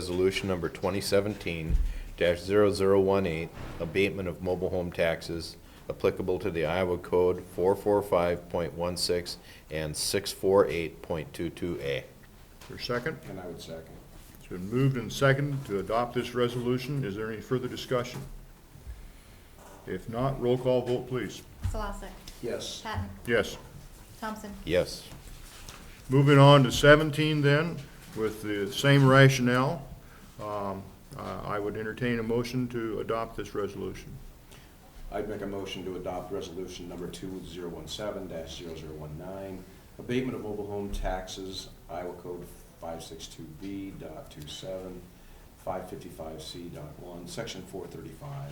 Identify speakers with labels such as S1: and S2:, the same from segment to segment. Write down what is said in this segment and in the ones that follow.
S1: Resolution number 2017-0018, abatement of mobile home taxes applicable to the Iowa Code 445.16 and 648.22A.
S2: Is there a second?
S3: And I would second.
S2: It's been moved and seconded to adopt this resolution. Is there any further discussion? If not, roll call vote, please.
S4: Solosik.
S3: Yes.
S4: Patton.
S2: Yes.
S4: Thompson.
S1: Yes.
S2: Moving on to seventeen then, with the same rationale, um, I I would entertain a motion to adopt this resolution.
S3: I'd make a motion to adopt resolution number two zero one seven dash zero zero one nine, abatement of mobile home taxes, Iowa Code five six two B dot two seven, five fifty-five C dot one, section four thirty-five.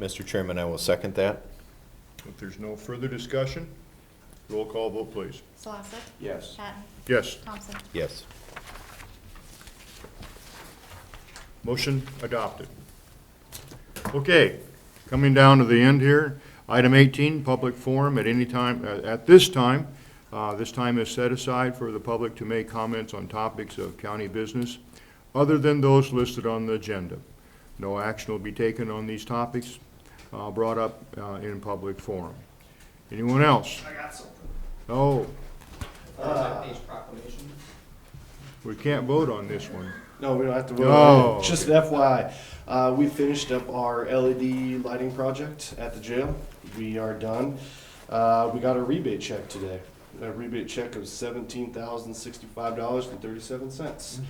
S1: Mr. Chairman, I will second that.
S2: If there's no further discussion, roll call vote, please.
S4: Solosik.
S3: Yes.
S4: Patton.
S2: Yes,
S4: Thompson.
S1: Yes.
S2: motion adopted. Okay, coming down to the end here, item eighteen, public forum at any time, uh, at this time. Uh, This time is set aside for the public to make comments on topics of county business other than those listed on the agenda. No action will be taken on these topics uh, brought up uh, in public forum. Anyone else?
S5: I got something.
S2: Oh,
S5: Anzac Day's proclamation.
S2: we can't vote on this one.
S6: No, we don't have to vote.
S2: No.
S6: on it. Just an FYI, uh, we finished up our LED lighting project at the jail. We are done. Uh, we got a rebate check today. A rebate check of seventeen thousand sixty-five dollars and thirty-seven cents,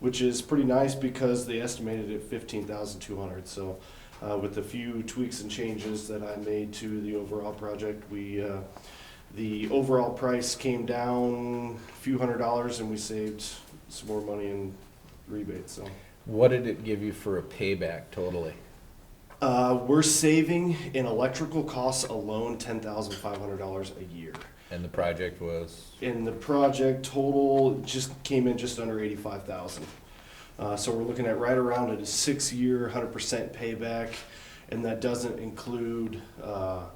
S6: which is pretty nice because they estimated it fifteen thousand two hundred. So, uh, with a few tweaks and changes that I made to the overall project, we uh, the overall price came down a few hundred dollars, and we saved some more money in rebate. So
S1: What did it give you for a payback totally?
S6: uh, we're saving in electrical costs alone ten thousand five hundred dollars a year.
S1: And the project was?
S6: And the project total just came in just under eighty-five thousand. Uh, so we're looking at right around a six-year, hundred percent payback, and that doesn't include uh,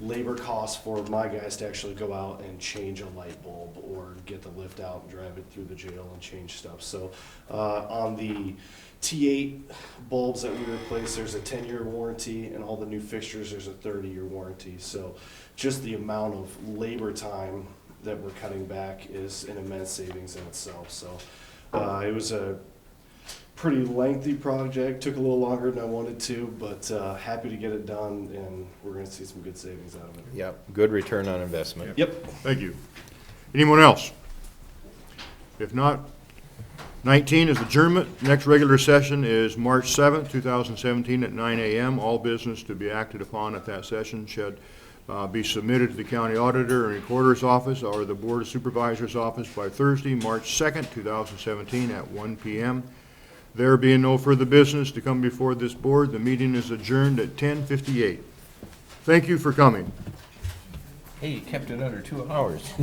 S6: labor costs for my guys to actually go out and change a light bulb or get the lift out and drive it through the jail and change stuff. So uh, on the T8 bulbs that we replaced, there's a 10-year warranty, and all the new fixtures, there's a 30-year warranty. So just the amount of labor time that we're cutting back is an immense savings in itself. So uh, it was a pretty lengthy project, took a little longer than I wanted to, but uh, happy to get it done, and we're going to see some good savings out of it.
S1: Yep, good return on investment.
S6: Yep.
S2: Thank you. Anyone else? If not, 19 is adjournment. Next regular session is March 7th, 2017, at 9 a.m. All business to be acted upon at that session should uh, be submitted to the county auditor and recorder's office or the board of supervisor's office by Thursday, March 2nd, 2017, at 1 p.m. There being no further business to come before this board, the meeting is adjourned at 10:58. Thank you for coming.
S1: Hey, you kept it under two hours.